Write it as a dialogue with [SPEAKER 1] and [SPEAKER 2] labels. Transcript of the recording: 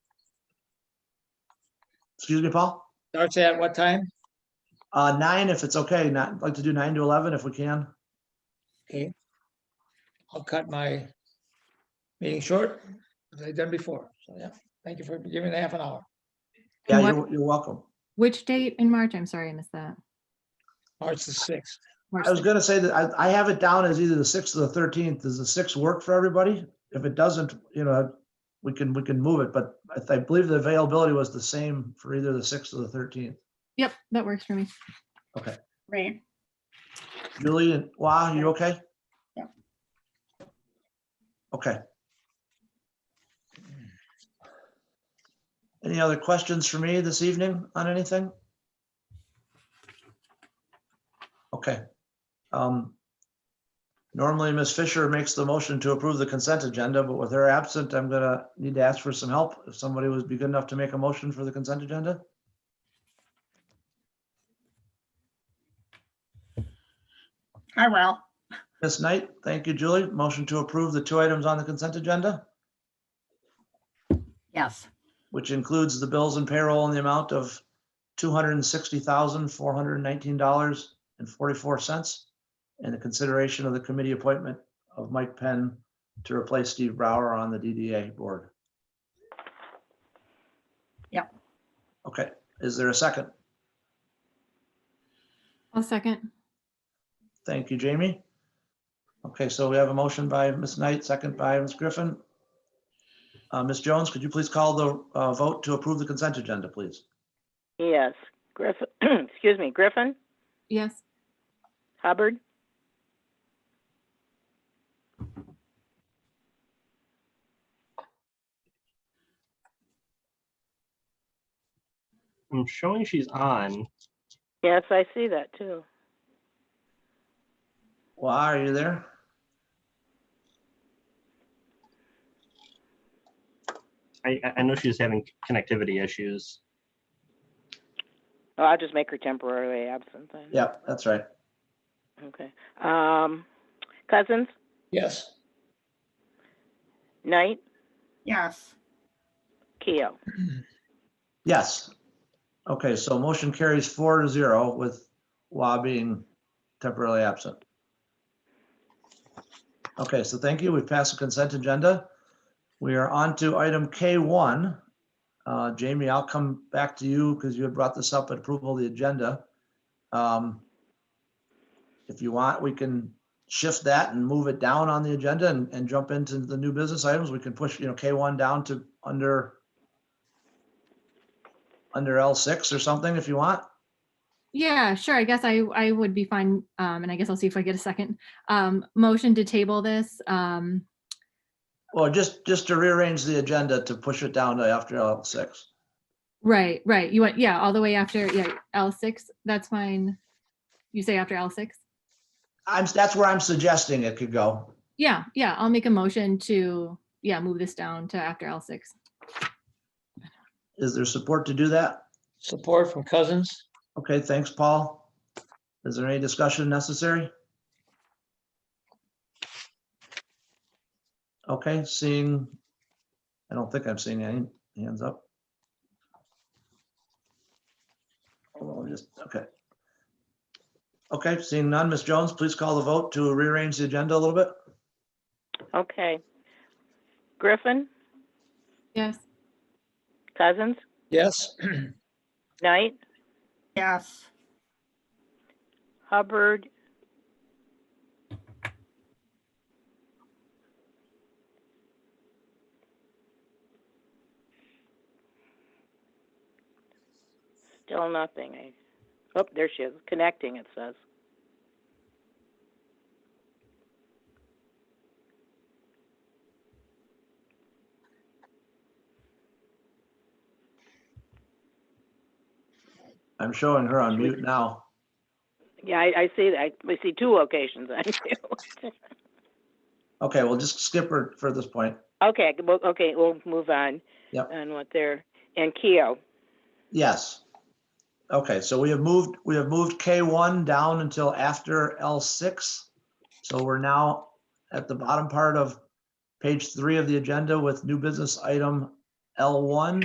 [SPEAKER 1] Excuse me, Paul?
[SPEAKER 2] Starts at what time?
[SPEAKER 1] Uh, nine, if it's okay, not, I'd like to do nine to eleven if we can.
[SPEAKER 2] Okay. I'll cut my meeting short, as I've done before. So, yeah, thank you for giving me half an hour.
[SPEAKER 1] Yeah,
[SPEAKER 3] And what-
[SPEAKER 1] you're, you're welcome.
[SPEAKER 3] Which date in March? I'm sorry, I missed that.
[SPEAKER 2] March the sixth.
[SPEAKER 3] March
[SPEAKER 1] I was
[SPEAKER 3] sixth.
[SPEAKER 1] gonna say that I, I have it down as either the sixth or the thirteenth. Does the sixth work for everybody? If it doesn't, you know, we can, we can move it, but I th- I believe the availability was the same for either the sixth or the thirteenth.
[SPEAKER 3] Yep, that works for me.
[SPEAKER 4] Right.
[SPEAKER 1] Julie and Wah, you okay?
[SPEAKER 4] Yeah.
[SPEAKER 1] Okay. Any other questions for me this evening on anything? Okay. Um, Normally, Ms. Fisher makes the motion to approve the consent agenda, but with her absent, I'm gonna need to ask for some help. If somebody would be good enough to make a motion for the consent agenda?
[SPEAKER 4] I will.
[SPEAKER 1] Ms. Knight, thank you, Julie. Motion to approve the two items on the consent agenda?
[SPEAKER 4] Yes.
[SPEAKER 1] which includes the bills and payroll in the amount of two hundred and sixty thousand, four hundred and nineteen dollars and forty-four cents, and the consideration of the committee appointment of Mike Penn to replace Steve Brower on the DDA board.
[SPEAKER 4] Yep.
[SPEAKER 1] Okay, is there a second?
[SPEAKER 3] I'll second.
[SPEAKER 1] Thank you, Jamie. Okay, so we have a motion by Ms. Knight, second by Ms. Griffin. Uh, Ms. Jones, could you please call the uh, vote to approve the consent agenda, please?
[SPEAKER 5] Yes. Griffin, excuse me, Griffin,
[SPEAKER 3] Yes,
[SPEAKER 5] Hubbard,
[SPEAKER 6] I'm showing she's on.
[SPEAKER 5] yes, I see that too.
[SPEAKER 1] Well, are you there?
[SPEAKER 6] I, I- I know she's having connectivity issues.
[SPEAKER 5] Oh, I'll just make her temporarily absent then.
[SPEAKER 1] Yeah, that's right.
[SPEAKER 5] Okay. Um, Cousins,
[SPEAKER 2] Yes.
[SPEAKER 5] Knight,
[SPEAKER 4] Yes.
[SPEAKER 5] Keo.
[SPEAKER 1] Yes. Okay, so motion carries four to zero with Wa being temporarily absent. Okay, so thank you. We've passed the consent agenda. We are on to item K1. Uh, Jamie, I'll come back to you because you had brought this up at approval of the agenda. Um, If you want, we can shift that and move it down on the agenda and, and jump into the new business items. We can push, you know, K1 down to under under L6 or something if you want.
[SPEAKER 3] yeah, sure. I guess I, I would be fine. Um, and I guess I'll see if I get a second. Um, motion to table this. Um,
[SPEAKER 1] Or just, just to rearrange the agenda to push it down to after L6.
[SPEAKER 3] right, right. You went, yeah, all the way after, yeah, L six, that's fine. You say after L six?
[SPEAKER 1] I'm, that's where I'm suggesting it could go.
[SPEAKER 3] Yeah, yeah, I'll make a motion to, yeah, move this down to after L six.
[SPEAKER 1] Is there support to do that?
[SPEAKER 2] Support from Cousins.
[SPEAKER 1] Okay, thanks, Paul. Is there any discussion necessary? Okay, seeing, I don't think I'm seeing any hands up. Hold on, just, okay. Okay, seeing none, Ms. Jones, please call the vote to rearrange the agenda a little bit.
[SPEAKER 5] Okay. Griffin,
[SPEAKER 3] Yes,
[SPEAKER 5] Cousins,
[SPEAKER 2] Yes.
[SPEAKER 5] Knight,
[SPEAKER 4] Yes.
[SPEAKER 5] Hubbard. Still nothing. I, oh, there she is, connecting, it says.
[SPEAKER 1] I'm showing her on mute now.
[SPEAKER 5] Yeah, I, I see that. I we see two locations on you.
[SPEAKER 1] Okay, we'll just skip her for this point.
[SPEAKER 5] Okay, well, okay, we'll move on.
[SPEAKER 1] Yep.
[SPEAKER 5] On what they're, and Keo,
[SPEAKER 1] Yes. Okay, so we have moved, we have moved K1 down until after L6. So we're now at the bottom part of page three of the agenda with new business item L1.